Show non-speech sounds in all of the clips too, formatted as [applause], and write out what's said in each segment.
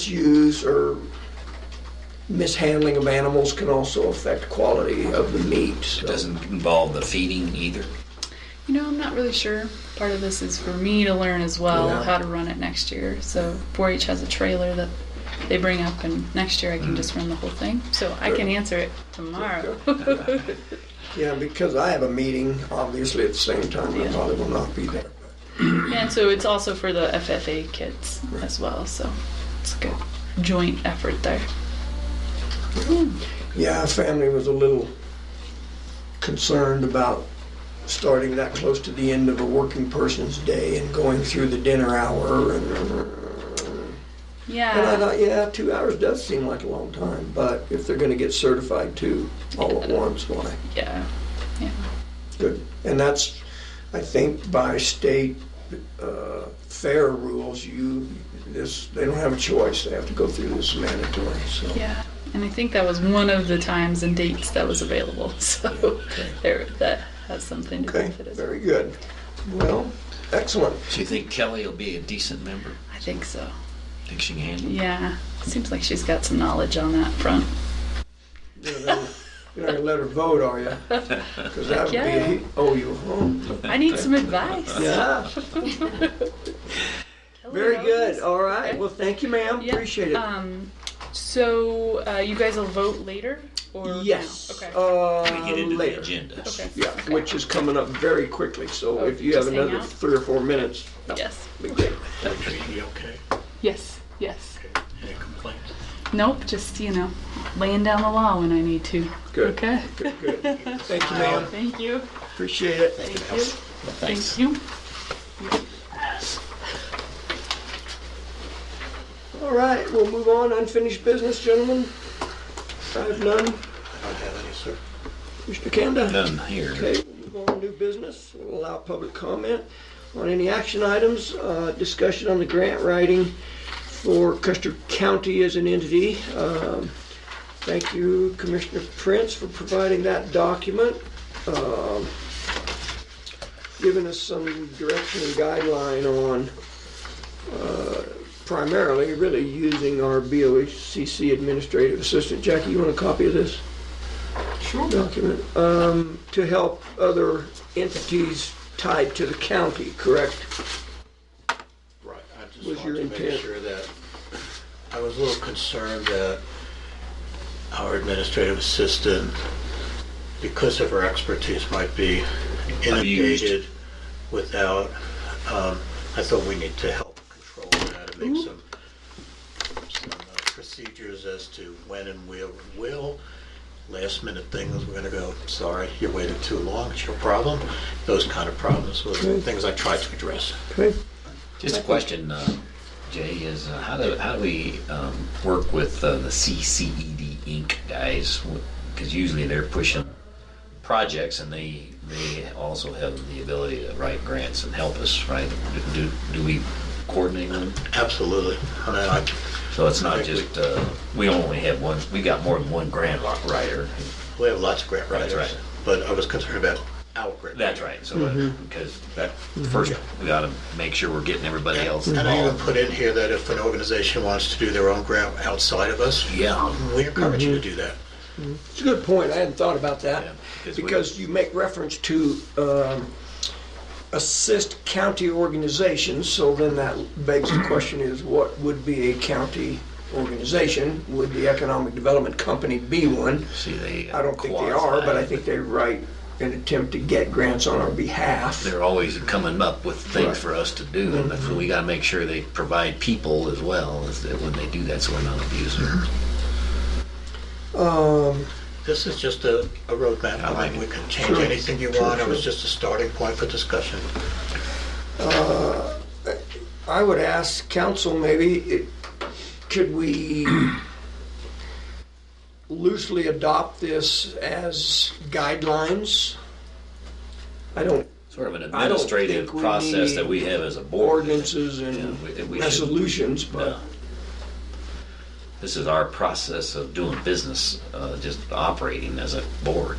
misuse or mishandling of animals can also affect quality of the meat. so- Doesn't involve the feeding either. You know, I'm not really sure. Part of this is for me to learn as well Yeah. how to run it next year. So 4-H has a trailer that they bring up, and next year I can Mm. just run the whole thing. So I can answer it tomorrow. Yeah, because I have a meeting, obviously, at the same time, I Yeah. probably will not be there. [laughs] and so it's also for the FFA kids as well. So it's a good joint effort there. Yeah, our family was a little concerned about starting that close to the end of a working person's day and going through the dinner hour and And I Yeah. thought, yeah, two hours does seem like a long time, but if they're going to get certified too all at once, why? Yeah. Yeah. Good. And that's, I think, by state uh, fair rules, you this they don't have a choice. They have to go through this mandatory. So Yeah. And I think that was one of the times and dates that was available. [laughs] So there, that has something to do okay, with it as well. very good. Well, excellent. So you think Kelly will be a decent member? I think so. Think she can handle? it? Yeah, seems like she's got some knowledge on that front. You're not gonna- you're not gonna let her vote, are you? Because that would Yeah. be oh you home. I need some advice. Yeah, Hello. very good. All right. Well, thank you, ma'am. Yeah, Appreciate it. Um, so uh, you guys will vote later or now? Yes. Okay. Uh, We get into later. the agenda. okay. Yeah, which is coming up very quickly. So Oh, if you have just hang another out? three or four minutes, Yes. be great. Be okay? Yes. Yes. Any complaints? Nope. Just you know, laying down the law when I need to. Good. Okay. Good. Thank you, ma'am. Thank you. Appreciate it. Thank you. Thank you. All right, we'll move on. Unfinished business, gentlemen. I have none. I don't have any, sir. Mr. Kanda? Done here. Okay, we'll move on to new business. We'll allow public comment on any action items, uh, discussion on the grant writing for Custer County as an entity. Um, Thank you, Commissioner Prince, for providing that document. um, Giving us some direction and guideline on uh, primarily, really using our BOHCC Administrative Assistant. Jackie, you want a copy of this? document, um, to help other entities tied to the county, correct? Right, I just Was your wanted to make intent- sure that, I was a little concerned that our administrative assistant, because of her expertise, might be inundated without, um, I thought we need to help control that and Mm-hmm. make some, some uh, procedures as to when and where we will. Last minute things, we're gonna go, sorry, you waited too long, it's your problem. Those kind of problems were the Okay. things I tried to address. Okay. Just a question, uh, Jay, is uh, how do, how do we um, work with uh, the CCED Inc. guys? Because usually they're pushing projects and they, they also have the ability to write grants and help us, right? Do, do we coordinate them? Absolutely. I mean, I, So it's not just, uh, we only have one, we got more than one grant writer. we have lots of grant That's writers. right. But I was concerned about our grant. That's right, so, uh, Mm-hmm. because that, first, we gotta make sure we're getting everybody else And I even involved. put in here that if an organization wants to do their own grant outside of us, Yeah. we encourage you to do that. It's a good point. I hadn't thought about Yeah, that. because we- Because you make reference to um, assist county organizations, so then that begs the question is what would be a county organization? Would the Economic Development Company be one? See, they. uh, I don't think they are, but I think they write an attempt to get grants on our behalf. They're always coming up with Right. Mm-hmm. things for us to do, and that's what we gotta make sure they provide people as well, is that when they do that, so we're not abusing them. This is just a, a roadmap. I like I mean, we it. can change Sure. anything you Sure, want. It was sure. just a starting point for discussion. I would ask council maybe, it- could we [clears throat] loosely adopt this as guidelines? I don't, Sort of an I don't think administrative we process that need we have as a board. ordinances Yeah, and we- we should- resolutions, but No. This is our process of doing business, uh, just operating as a board.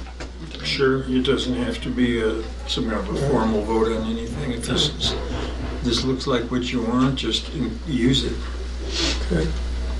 Sure, it doesn't have to be a, some kind of a formal vote on anything. If this, this looks like what you want, just use it. Okay.